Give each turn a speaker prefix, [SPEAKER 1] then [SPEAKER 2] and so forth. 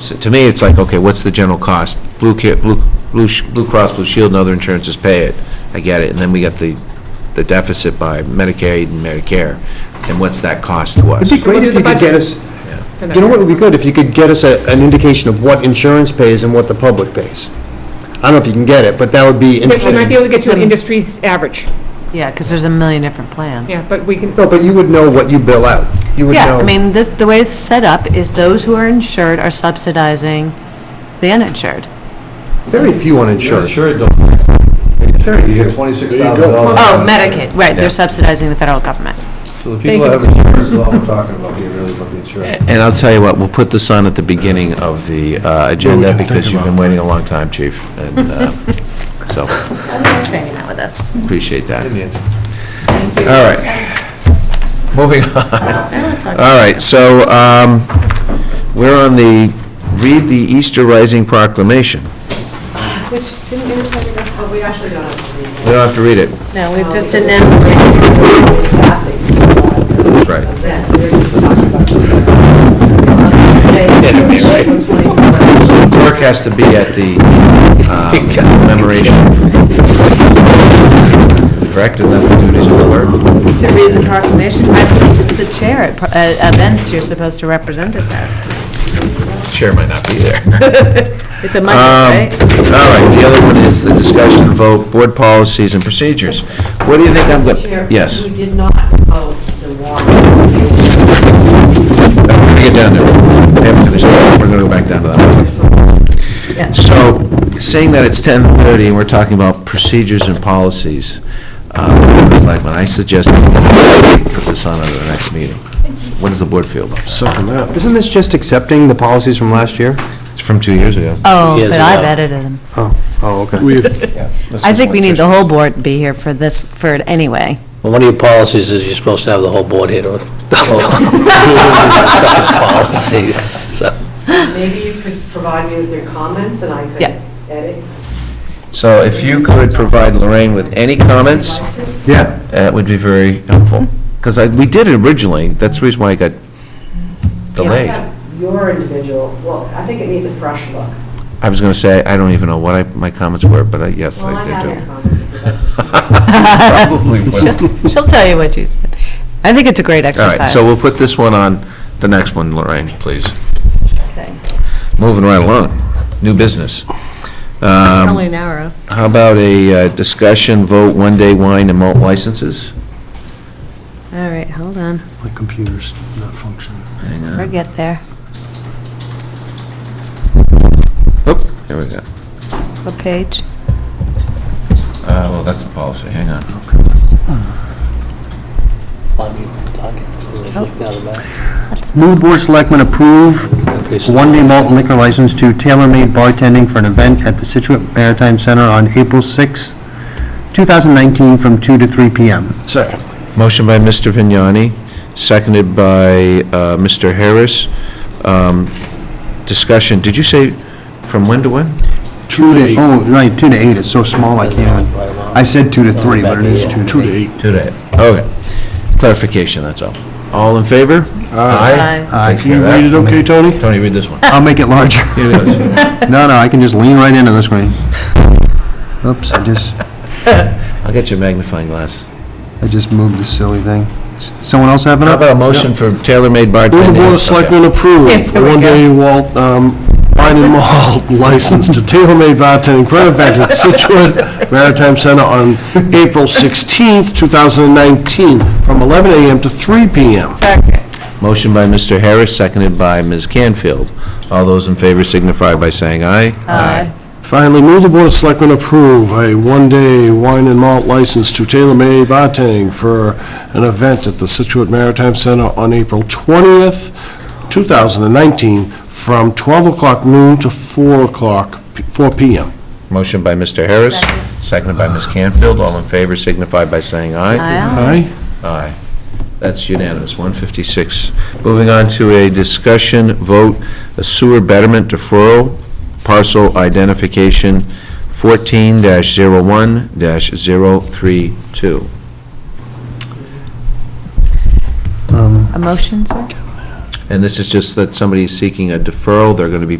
[SPEAKER 1] So to me, it's like, okay, what's the general cost? Blue Ca- Blue, Blue Sh- Blue Cross Blue Shield and other insurances pay it, I get it, and then we got the, the deficit by Medicaid and Medicare, and what's that cost to us?
[SPEAKER 2] It'd be great if you could get us, you know what would be good, if you could get us a- an indication of what insurance pays and what the public pays. I don't know if you can get it, but that would be
[SPEAKER 3] We might be
[SPEAKER 2] interesting.
[SPEAKER 3] able to get to an industry's average,
[SPEAKER 4] Yeah, because there's a million different plans.
[SPEAKER 3] yeah, but we can,
[SPEAKER 2] No, but you would know what you bill out. You would know.
[SPEAKER 4] Yeah, I mean, this, the way it's set up is those who are insured are subsidizing the uninsured.
[SPEAKER 2] Very few uninsured.
[SPEAKER 5] Sure, don't.
[SPEAKER 2] Very
[SPEAKER 5] You
[SPEAKER 2] few.
[SPEAKER 5] get twenty-six
[SPEAKER 6] There you
[SPEAKER 5] thousand
[SPEAKER 6] go.
[SPEAKER 5] dollars.
[SPEAKER 4] Oh, Medicaid, right,
[SPEAKER 1] Yeah.
[SPEAKER 4] they're subsidizing the federal government.
[SPEAKER 5] So the
[SPEAKER 3] Thank
[SPEAKER 5] people
[SPEAKER 3] you,
[SPEAKER 5] that have
[SPEAKER 3] Mr.
[SPEAKER 5] insurance is all we're talking about here, really, about the insurance.
[SPEAKER 1] And I'll tell you what, we'll put this on at the beginning of the uh, agenda,
[SPEAKER 6] can think
[SPEAKER 1] because you've been
[SPEAKER 6] about it.
[SPEAKER 1] waiting a long time, Chief, and, uh, so,
[SPEAKER 4] I'm not saying that with us.
[SPEAKER 1] appreciate that.
[SPEAKER 5] Indians.
[SPEAKER 1] All right. Moving on. All right, so um, we're on the, read the Easter Rising Proclamation.
[SPEAKER 7] Which didn't give us enough, but Oh, we actually don't have to read
[SPEAKER 1] We don't have to read it.
[SPEAKER 4] No, we've just announced,
[SPEAKER 7] that.
[SPEAKER 1] Right.
[SPEAKER 7] Yeah, we're just talking about
[SPEAKER 1] Yeah,
[SPEAKER 7] something. Twenty-four.
[SPEAKER 1] Work has to be at the um, commemoration. Correct, isn't that the duties of the clerk?
[SPEAKER 4] to read the proclamation, I believe it's the chair at pro- at events you're supposed to represent us at.
[SPEAKER 1] Chair might not be there.
[SPEAKER 4] It's a
[SPEAKER 1] Um,
[SPEAKER 4] Monday, right?
[SPEAKER 1] All right, the other one is the discussion vote, board policies and procedures. What do you think I'm going,
[SPEAKER 7] Chair,
[SPEAKER 1] yes,
[SPEAKER 7] We did not vote the warrant.
[SPEAKER 1] get down there. We haven't finished, yet. we're going to go back down to that one.
[SPEAKER 4] Yeah.
[SPEAKER 1] So, seeing that it's 10:30 and we're talking about procedures and policies, uh, Mr. Blackman, I suggest we put this on at the next meeting. What does the board feel about that?
[SPEAKER 6] Second that.
[SPEAKER 2] Isn't this just accepting the policies from last year?
[SPEAKER 1] It's from two years ago.
[SPEAKER 4] Oh,
[SPEAKER 8] Years
[SPEAKER 4] but I've
[SPEAKER 8] ago.
[SPEAKER 4] edited them.
[SPEAKER 2] Oh, oh, okay.
[SPEAKER 6] We,
[SPEAKER 4] I think we need the whole board to be here for this, for it anyway.
[SPEAKER 8] Well, one of your policies is you're supposed to have the whole board here to policies, so.
[SPEAKER 7] Maybe you could provide me with your comments and I could
[SPEAKER 4] Yeah.
[SPEAKER 7] edit.
[SPEAKER 1] So if you could provide Lorraine with any comments,
[SPEAKER 7] Would you like to?
[SPEAKER 2] Yeah.
[SPEAKER 1] that would be very helpful. Because we did it originally, that's the reason why it got delayed.
[SPEAKER 7] Yeah, Your individual, well, I think it needs a fresh look.
[SPEAKER 1] I was going to say, I don't even know what I- my comments were, but I- yes,
[SPEAKER 7] Well,
[SPEAKER 1] I
[SPEAKER 7] I
[SPEAKER 1] did
[SPEAKER 7] have
[SPEAKER 1] do.
[SPEAKER 7] your comments if you'd like to see them.
[SPEAKER 1] Probably will.
[SPEAKER 4] She'll she'll tell you what you said. I think it's a great
[SPEAKER 1] All
[SPEAKER 4] exercise.
[SPEAKER 1] right, so we'll put this one on, the next one, Lorraine, please.
[SPEAKER 4] Okay.
[SPEAKER 1] Moving right along, new business. Um,
[SPEAKER 4] Only an hour.
[SPEAKER 1] How about a uh, discussion, vote, one-day wine and malt licenses?
[SPEAKER 4] All right, hold on.
[SPEAKER 6] my computer's not functioning.
[SPEAKER 1] Hang on.
[SPEAKER 4] We'll get there.
[SPEAKER 1] Oop, here we go.
[SPEAKER 4] What page?
[SPEAKER 1] Uh, Well, that's the policy, hang on.
[SPEAKER 2] Move Board of Selectmen approve one-day malt and liquor license to Tailor Made Bartending for an event at the Situate Maritime Center on April 6, 2019, from 2 to 3 p.m.
[SPEAKER 6] Second.
[SPEAKER 1] Motion by Mr. Vignani, seconded by uh, Mr. Harris. Um, Discussion, did you say from when to when?
[SPEAKER 2] Two to, oh, right, 2 to 8, it's so small I can't, even- I said 2 to 3, but it is 2
[SPEAKER 6] Two to
[SPEAKER 2] to 8.
[SPEAKER 6] eight.
[SPEAKER 1] Today. Okay. Clarification, that's all. All in favor?
[SPEAKER 4] Aye.
[SPEAKER 2] Aye.
[SPEAKER 1] Take care of that.
[SPEAKER 6] okay, Tony?
[SPEAKER 1] Tony, read this one.
[SPEAKER 2] I'll make it larger.
[SPEAKER 1] Here it goes.
[SPEAKER 2] No, no, I can just lean right into this screen. Oops, I just,
[SPEAKER 1] I'll get you a magnifying glass.
[SPEAKER 2] I just moved this silly thing. S- Someone else have it
[SPEAKER 1] How
[SPEAKER 2] up?
[SPEAKER 1] about a motion for tailor-made bartending?
[SPEAKER 6] Move the Board of Selectmen approve
[SPEAKER 4] Yeah, there we
[SPEAKER 6] one-day malt, um, wine and malt license to tailor-made bartending for an event at Situate Maritime Center on April 16th, 2019, from 11 a.m. to 3 p.m.
[SPEAKER 1] Motion by Mr. Harris, seconded by Ms. Canfield. All those in favor signify by saying aye.
[SPEAKER 4] Aye.
[SPEAKER 6] Finally, move the Board of Selectmen approve a one-day wine and malt license to tailor-made bartending for an event at the Situate Maritime Center on April 20th, 2019, from 12 o'clock noon to 4 o'clock, p- 4 p.m.
[SPEAKER 1] Motion by Mr. Harris, seconded by Ms. Canfield. All in favor signify by saying aye.
[SPEAKER 4] Aye.
[SPEAKER 6] Aye?
[SPEAKER 1] Aye. That's unanimous, 156. Moving on to a discussion vote, a sewer betterment deferral, parcel identification 14-01-032.
[SPEAKER 4] A motion, sir?
[SPEAKER 1] And this is just that somebody's seeking a deferral, they're going to be